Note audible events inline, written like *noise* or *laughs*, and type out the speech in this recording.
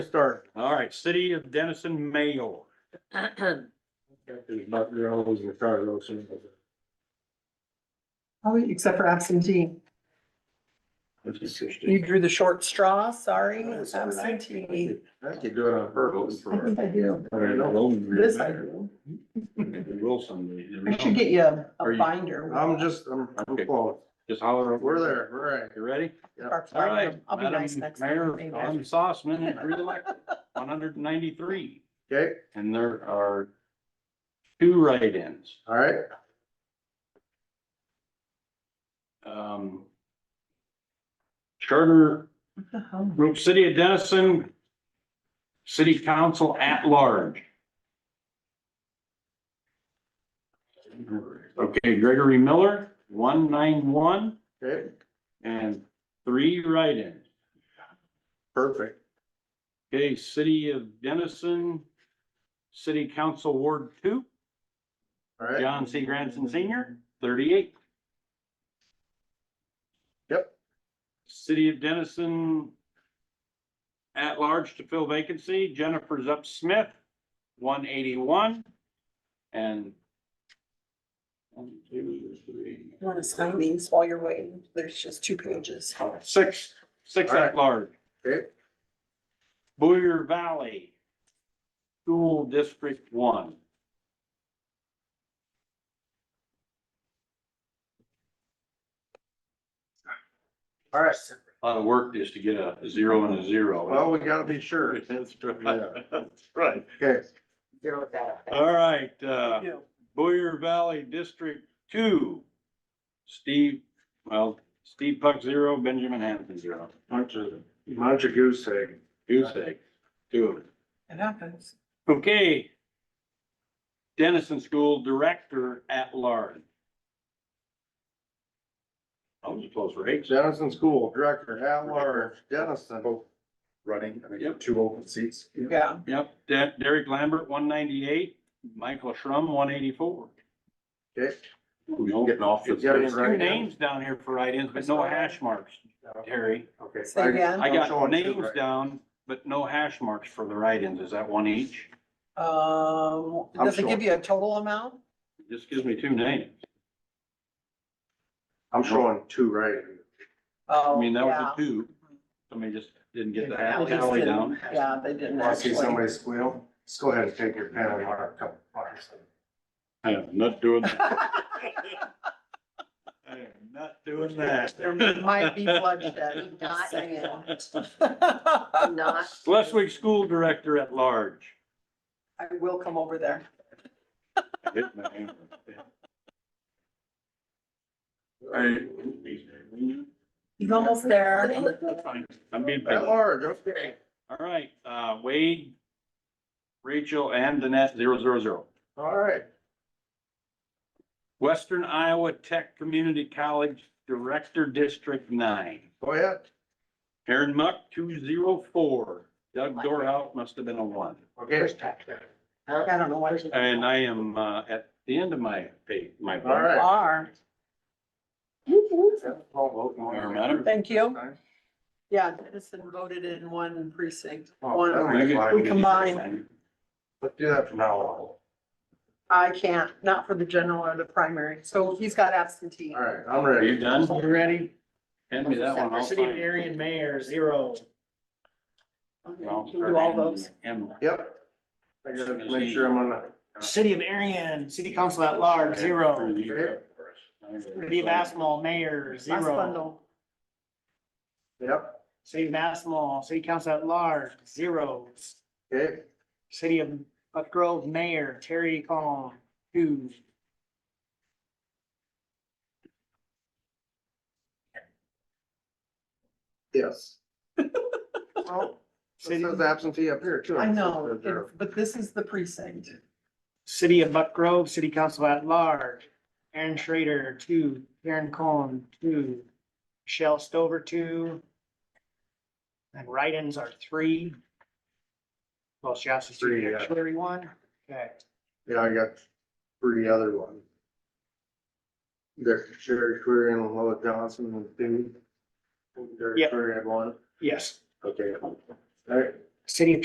Start. All right, City of Dennison Mayor. There's not, you're always retired, those. Oh, except for absentee. You drew the short straw, sorry, absentee. I could do it on purpose. I think I do. This I Wilson. do. I should get you a- Are a you- binder. with I'm that. just, I'm, I'm Okay. close. Just holler over. We're there, we're right. You ready? Or- Yep. All right. I'll be nice Madam next time. Mayor, maybe. Tom Sossman *laughs* is reelected, one hundred and ninety-three, Okay, and there are two write-ins. all right. Um, Charter What the hell? Group City of Dennison, City Council at Large. Okay, Gregory Miller, one nine one, Okay, and three write-ins. perfect. Okay, City of Dennison, City Council Ward Two, All right. John C. Granson Senior, thirty-eight. Yep. City of Dennison, at large to fill vacancy, Jennifer Zup Smith, one eighty-one, and one, two, three, You want to sign these while you're waiting? There's just two pages. six, six All right. at large. Okay, Booyer Valley, School District One. all right. A lot of work just to get a zero and a zero. Well, we gotta be sure. *laughs* That's Yeah. right. That's right. Okay, All right, uh, You. Boyer Valley District Two. Steve, well, Steve Puck zero, Benjamin Hanson zero. bunch of, bunch of goose egg. Goose egg, two of them. It happens. Okay. Dennison School Director at Large. That was a close race. Dennison School Director at Large, Dennison. running, I think, Yep. two open seats. Yeah. Yep, De- Derek Lambert, one ninety-eight, Michael Schrum, one eighty-four. Okay, Getting off. the- You got it Two Right. names down here for write-ins, but no hash marks, Terry. Okay. Say again. I got showing two, names right? down, but no hash marks for the write-ins. Is that one each? Um, I'm does it sure. give you a total amount? Just gives me two names. I'm showing two right. I Oh, mean, that was yeah. a two. Somebody just didn't get the Yeah, hash they just tally didn't- down. Yeah, they didn't Want to see actually. somebody squeal? Just go ahead and take your pen and mark a couple marks. I am not doing, *laughs* *laughs* I am not doing that. There might be *laughs* bloodshed. Not- I Not, Schleswig School Director at Large. will come over there. I hit my hand. He's almost there. That's fine. I'm being At picky. large, okay. All right, uh, Wade, Rachel, and Danette, zero, zero, zero. All right, Western Iowa Tech Community College Director, District Nine. go ahead. Aaron Muck, two, zero, four. Doug Dorhout must have been a one. Okay, I don't know why. And I am, uh, at the end of my page, my. all right. Are. Or Madam. Thank you. Yeah, Edison voted in one precinct. Oh, One, We Let's combine. do that from now on. I can't, not for the general or the primary. So he's got absentee. All right, I'm Are you ready. done? You ready? Hand me that one. I'll City of find it. Darien Mayor, zero. Well, Do all those. and- Yep. I gotta make sure I'm on that. City of Darien, City Council at Large, zero. City of Asmal, Mayor, Last zero. bundle. Yep, City of Asmal, City Council at Large, zero. okay, City of Buck Grove, Mayor, Terry Collin, two. *laughs* yes. Well, it City, says absentee up here too. I know, it's- but this is the precinct. City of Buck Grove, City Council at Large, Aaron Schrader, two. Karen Collin, two. Michelle Stover, two. And write-ins are three. Well, she also Three, three, yeah. actually one, okay. Yeah, I got three other ones. There's Jerry Query and Lois Johnson and Dean. Jerry Yep. Query had one, Yes. okay. All right, City of